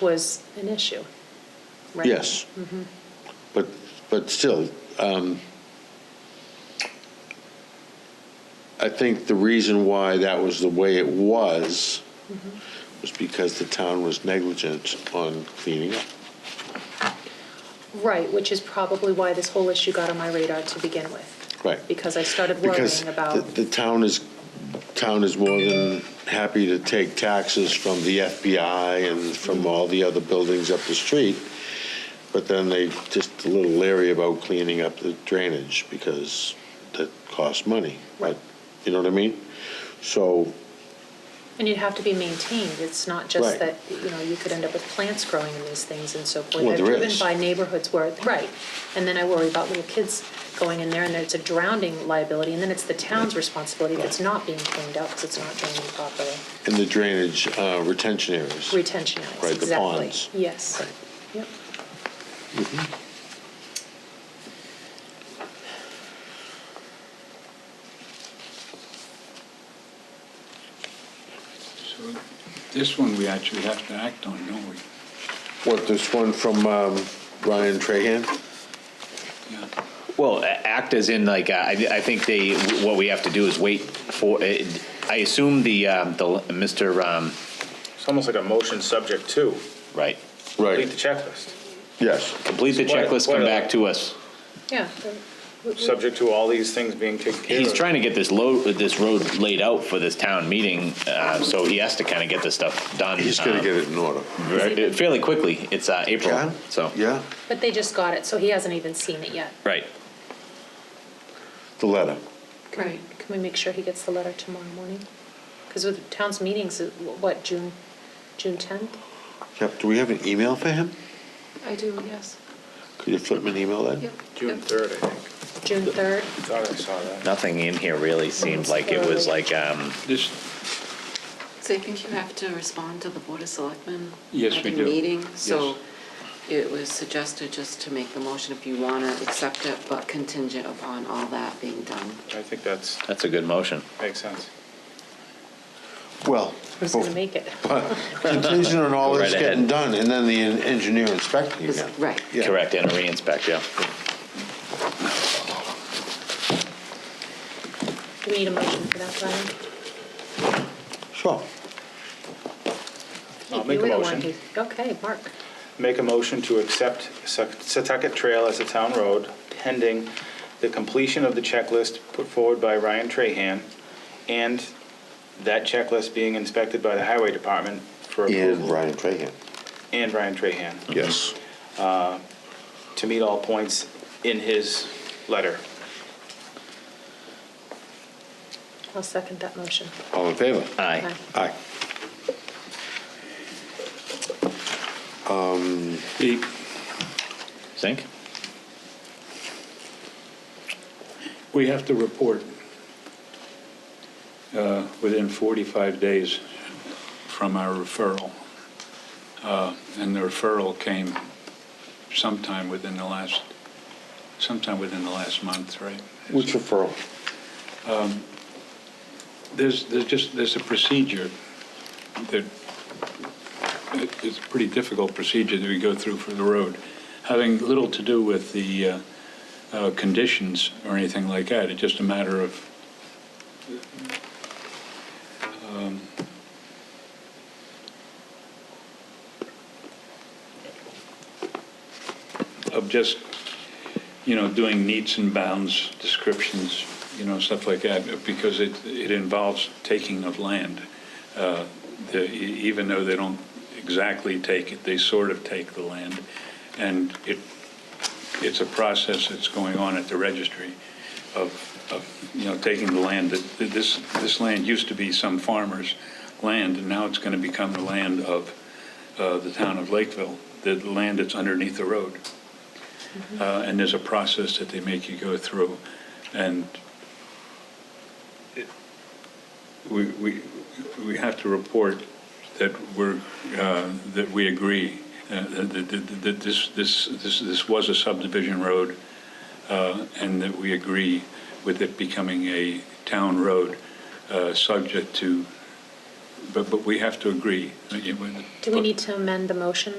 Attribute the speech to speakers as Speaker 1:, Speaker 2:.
Speaker 1: was an issue, right?
Speaker 2: Yes. But, but still, um, I think the reason why that was the way it was was because the town was negligent on cleaning up.
Speaker 1: Right, which is probably why this whole issue got on my radar to begin with.
Speaker 2: Right.
Speaker 1: Because I started
Speaker 2: Because
Speaker 1: worrying about,
Speaker 2: the the town is, town is more than happy to take taxes from the FBI and from all the other buildings up the street, but then they just a little leery about cleaning up the drainage because that costs money.
Speaker 1: Right.
Speaker 2: You know what I mean? So,
Speaker 1: and you'd have to be maintained, it's not just
Speaker 2: Right.
Speaker 1: that, you know, you could end up with plants growing in these things and so forth.
Speaker 2: Well, there
Speaker 1: I've driven
Speaker 2: is.
Speaker 1: by neighborhoods where, right, and then I worry about little kids going in there and it's a drowning liability, and then it's the town's responsibility if it's
Speaker 2: Right.
Speaker 1: not being cleaned up, because it's not draining properly.
Speaker 2: in the drainage uh, retention areas.
Speaker 1: Retention areas,
Speaker 2: Right, the
Speaker 1: exactly.
Speaker 2: ponds.
Speaker 1: Yes.
Speaker 2: Right.
Speaker 1: Yep.
Speaker 3: So this one we actually have to act on, don't we?
Speaker 2: What, this one from um, Ryan Trahan?
Speaker 3: Yeah.
Speaker 4: Well, a- act as in like, uh, I, I think they, what we have to do is wait for, it- I assume the, um, the, Mr., um,
Speaker 5: It's almost like a motion subject to,
Speaker 4: right,
Speaker 5: complete
Speaker 2: Right,
Speaker 5: the checklist,
Speaker 2: yes.
Speaker 4: complete the
Speaker 5: Why-
Speaker 4: checklist,
Speaker 5: why
Speaker 4: come
Speaker 5: not?
Speaker 4: back to us.
Speaker 1: Yeah. We- we-
Speaker 5: subject to all these things being taken care of.
Speaker 4: He's trying to get this load, this road laid out for this town meeting, uh, so he has to kind of get this stuff done.
Speaker 2: He's going to
Speaker 4: um,
Speaker 2: get it in order.
Speaker 4: ver- uh, Fairly quickly, it's, uh, April, so.
Speaker 2: Yeah,
Speaker 1: But they just got it, so he hasn't even seen it yet.
Speaker 4: Right,
Speaker 2: the letter.
Speaker 1: Right. Can we make sure he gets the letter tomorrow morning? Because with town's meetings, uh, what, June, June 10th?
Speaker 2: Yep, do we have an email for him?
Speaker 6: I do, yes.
Speaker 2: Could you flip me an email then?
Speaker 6: Yep.
Speaker 5: June
Speaker 6: Yep.
Speaker 5: 3rd, I think.
Speaker 1: June 3rd?
Speaker 5: Thought I saw that.
Speaker 4: nothing in here really seemed like it was like, um,
Speaker 3: This,
Speaker 6: So I think you have to respond to the Board of Selectmen.
Speaker 3: Yes, we
Speaker 6: At
Speaker 3: do.
Speaker 6: the meeting, so
Speaker 3: Yes.
Speaker 6: it was suggested just to make the motion if you want to accept it, but contingent upon all that being done.
Speaker 5: I think that's,
Speaker 4: that's a good motion.
Speaker 5: makes sense.
Speaker 2: Well,
Speaker 1: Who's going to make it?
Speaker 2: contingent on all this
Speaker 4: Right ahead.
Speaker 2: getting done, and then the en- engineer inspecting
Speaker 6: Is-
Speaker 2: again.
Speaker 6: Right.
Speaker 2: Yeah.
Speaker 4: Correct, and re-inspect, yeah.
Speaker 1: Do we need a motion for that, Brian?
Speaker 2: Sure.
Speaker 5: I'll
Speaker 1: You
Speaker 5: make a
Speaker 1: were the one
Speaker 5: motion.
Speaker 1: who- Okay, Mark.
Speaker 5: Make a motion to accept Sec- Setauket Trail as a town road pending the completion of the checklist put forward by Ryan Trahan and that checklist being inspected by the Highway Department for
Speaker 2: And
Speaker 5: approval.
Speaker 2: Ryan Trahan.
Speaker 5: And Ryan Trahan,
Speaker 2: Yes.
Speaker 5: to meet all points in his letter.
Speaker 1: I'll second that motion.
Speaker 2: All in favor?
Speaker 4: Aye.
Speaker 2: Aye.
Speaker 3: the-
Speaker 4: Sink?
Speaker 3: we have to report uh, within 45 days from our referral. Uh, And the referral came sometime within the last, sometime within the last month, right? Um,
Speaker 2: Which referral?
Speaker 3: There's, there's just, there's a procedure that, it's a pretty difficult procedure that we go through for the road, having little to do with the uh, uh, conditions or anything like that. It's just a matter of um, of just, you know, doing needs and bounds descriptions, you know, stuff like that, because it, it involves taking of land. Uh, the- e- Even though they don't exactly take it, they sort of take the land. And it, it's a process that's going on at the registry of, of, you know, taking the land. that- that This, this land used to be some farmer's land, and now it's going to become the land of uh, the town of Lakeville, the land that's underneath the road uh, and there's a process that they make you go through, and it- we, we, we have to report that we're, uh, that we agree, uh, that, that- that, that this, this, this this was a subdivision road, uh, and that we agree with it becoming a town road, uh, subject to
Speaker 7: but, but we have to agree. uh, you-
Speaker 3: Do we need to amend the motion